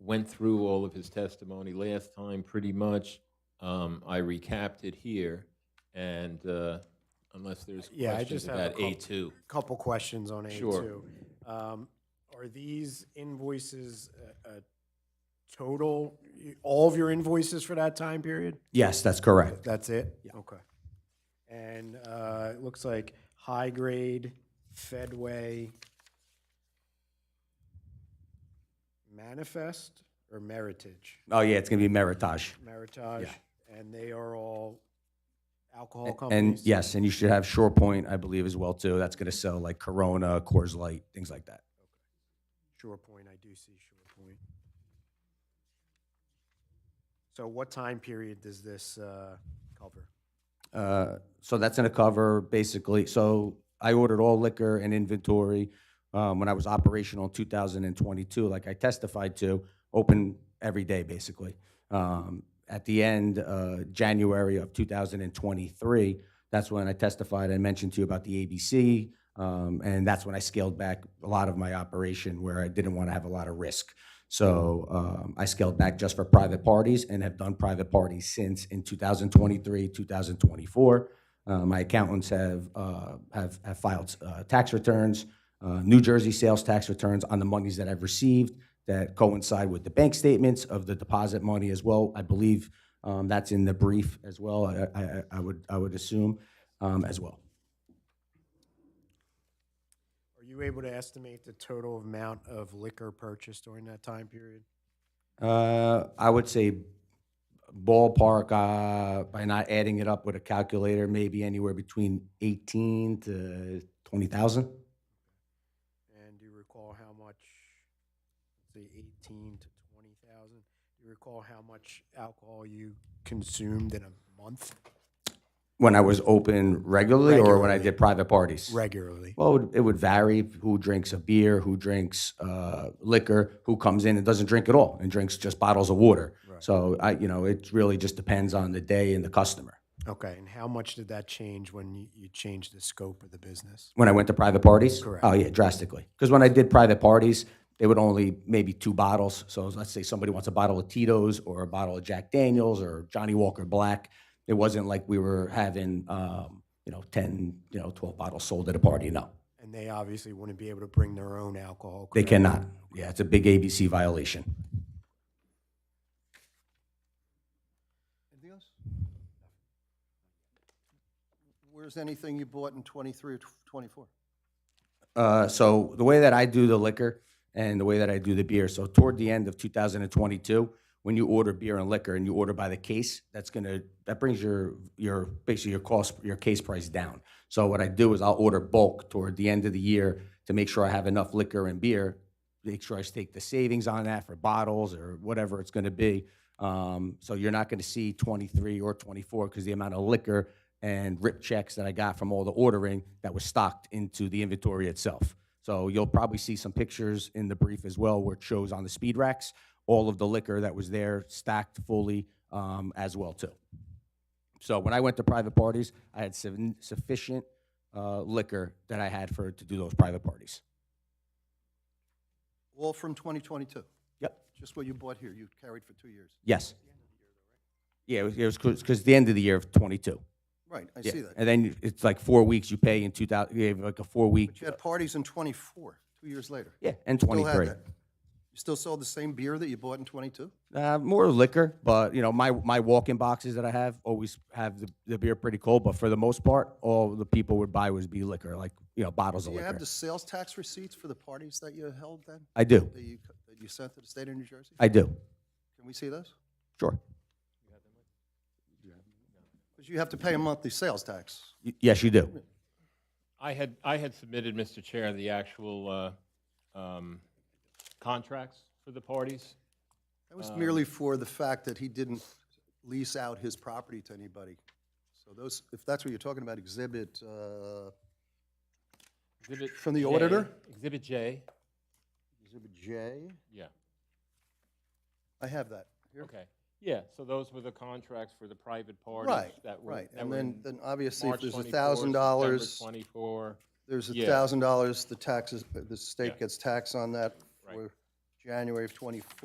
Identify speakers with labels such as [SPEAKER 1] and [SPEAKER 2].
[SPEAKER 1] went through all of his testimony last time, pretty much. Um, I recapped it here, and uh, unless there's
[SPEAKER 2] Yeah, I
[SPEAKER 1] questions
[SPEAKER 2] just have a
[SPEAKER 1] about
[SPEAKER 2] couple-
[SPEAKER 1] A2.
[SPEAKER 2] Couple questions on A2.
[SPEAKER 1] Sure.
[SPEAKER 2] Um, Are these invoices a- a total, y- all of your invoices for that time period?
[SPEAKER 3] Yes, that's correct.
[SPEAKER 2] That's it? Okay. And uh, it looks like High Grade, Fedway, Manifest, or Meritage?
[SPEAKER 3] Oh, yeah, it's going to be Meritage.
[SPEAKER 2] Meritage, and they are all alcohol
[SPEAKER 3] And
[SPEAKER 2] companies?
[SPEAKER 3] yes, and you should have Shore Point, I believe, as well, too. That's going to sell like Corona, Coors Light, things like that.
[SPEAKER 2] Shore Point, I do see Shore Point. So what time period does this uh, cover?
[SPEAKER 3] Uh, So that's going to cover basically, so I ordered all liquor and inventory um, when I was operational in 2022, like I testified to, open every day, basically. Um, At the end, uh, January of 2023, that's when I testified and mentioned to you about the ABC, um, and that's when I scaled back a lot of my operation where I didn't want to have a lot of risk. So um, I scaled back just for private parties and have done private parties since in 2023, 2024. Uh, my accountants have, uh, have, have filed uh, tax returns, uh, New Jersey sales tax returns on the monies that I've received that coincide with the bank statements of the deposit money as well. I believe um, that's in the brief as well. I, I, I- I would I would assume um, as well.
[SPEAKER 2] Are you able to estimate the total amount of liquor purchased during that time period?
[SPEAKER 3] Uh, I would say ballpark, uh, by not adding it up with a calculator, maybe anywhere between eighteen to twenty thousand.
[SPEAKER 2] And do you recall how much, let's say 18 to 20,000? Do you recall how much alcohol you consumed in a month
[SPEAKER 3] When I was open regularly, or when I did private parties?
[SPEAKER 2] regularly?
[SPEAKER 3] Well, it would- it would vary who drinks a beer, who drinks uh, liquor, who comes in and doesn't drink at all and drinks just bottles of water. So I, you know, it really just depends on the day and the customer.
[SPEAKER 2] Okay, and how much did that change when you- you changed the scope of the business?
[SPEAKER 3] When I went to private parties?
[SPEAKER 2] Correct.
[SPEAKER 3] Oh, yeah, drastically. Because when I did private parties, they would only maybe two bottles. So let's say somebody wants a bottle of Tito's or a bottle of Jack Daniels or Johnny Walker Black. It wasn't like we were having, um, you know, 10, you know, 12 bottles sold at a party. No,
[SPEAKER 2] And they obviously wouldn't be able to bring their own alcohol.
[SPEAKER 3] they
[SPEAKER 2] correct?
[SPEAKER 3] cannot. Yeah, it's a big ABC violation.
[SPEAKER 4] Anything else? Where's anything you bought in twenty-three or twenty-four?
[SPEAKER 3] Uh, so the way that I do the liquor and the way that I do the beer, so toward the end of 2022, when you order beer and liquor and you order by the case, that's gonna that brings your your basically your cost your case price down. So what I do is I'll order bulk toward the end of the year to make sure I have enough liquor and beer. Make sure I take the savings on that for bottles or whatever it's gonna be. Um, so you're not gonna see 23 or 24 because the amount of liquor and rip checks that I got from all the ordering that was stocked into the inventory itself. So you'll probably see some pictures in the brief as well where it shows on the speed racks, all of the liquor that was there stacked fully um, as well too. So when I went to private parties, I had sufficient- sufficient uh, liquor that I had for, to do those private parties.
[SPEAKER 4] All from twenty twenty-two,
[SPEAKER 3] Yep.
[SPEAKER 4] just what you bought here, you carried for two years.
[SPEAKER 3] Yes. Yeah, it was, it was, because the end of the year of twenty-two.
[SPEAKER 4] Right, I
[SPEAKER 3] Yeah.
[SPEAKER 4] see that.
[SPEAKER 3] And then it's like four weeks you pay in two thousand, you have like a four-week,
[SPEAKER 4] But you had parties in twenty-four, two years later.
[SPEAKER 3] yeah, and
[SPEAKER 4] Still had
[SPEAKER 3] twenty-three.
[SPEAKER 4] that. You still sold the same beer that you bought in twenty-two?
[SPEAKER 3] Uh, more liquor, but you know my my walk-in boxes that I have always have the, the beer pretty cold. But for the most part, all the people would buy would be liquor, like you know bottles
[SPEAKER 4] Do
[SPEAKER 3] of
[SPEAKER 4] you have
[SPEAKER 3] liquor.
[SPEAKER 4] the sales tax receipts for the parties that you held then,
[SPEAKER 3] I do,
[SPEAKER 4] that you, that you sent to the state of New Jersey?
[SPEAKER 3] I do,
[SPEAKER 4] Can we see those?
[SPEAKER 3] sure.
[SPEAKER 4] Because you have to pay a monthly sales tax.
[SPEAKER 3] Y- yes, you do.
[SPEAKER 1] I had, I had submitted, Mr. Chair, the actual uh, um, contracts for the parties.
[SPEAKER 4] That was
[SPEAKER 1] Um,
[SPEAKER 4] merely for the fact that he didn't lease out his property to anybody. So those, if that's what you're talking about, exhibit, uh,
[SPEAKER 1] Exhibit
[SPEAKER 4] From the
[SPEAKER 1] J-
[SPEAKER 4] auditor?
[SPEAKER 1] Exhibit J,
[SPEAKER 4] exhibit J.
[SPEAKER 1] yeah,
[SPEAKER 4] I have that. here.
[SPEAKER 1] okay. Yeah, so those were the contracts for the private parties
[SPEAKER 4] Right,
[SPEAKER 1] that were.
[SPEAKER 4] right.
[SPEAKER 1] that
[SPEAKER 4] And
[SPEAKER 1] were
[SPEAKER 4] then,
[SPEAKER 1] in
[SPEAKER 4] then obviously, if
[SPEAKER 1] March
[SPEAKER 4] there's a
[SPEAKER 1] 24,
[SPEAKER 4] thousand
[SPEAKER 1] September
[SPEAKER 4] dollars,
[SPEAKER 1] Twenty-four,
[SPEAKER 4] there's a
[SPEAKER 1] yeah.
[SPEAKER 4] thousand dollars, the taxes, the
[SPEAKER 1] Yeah.
[SPEAKER 4] state gets taxed on that
[SPEAKER 1] Right.
[SPEAKER 4] for January of twenty-four.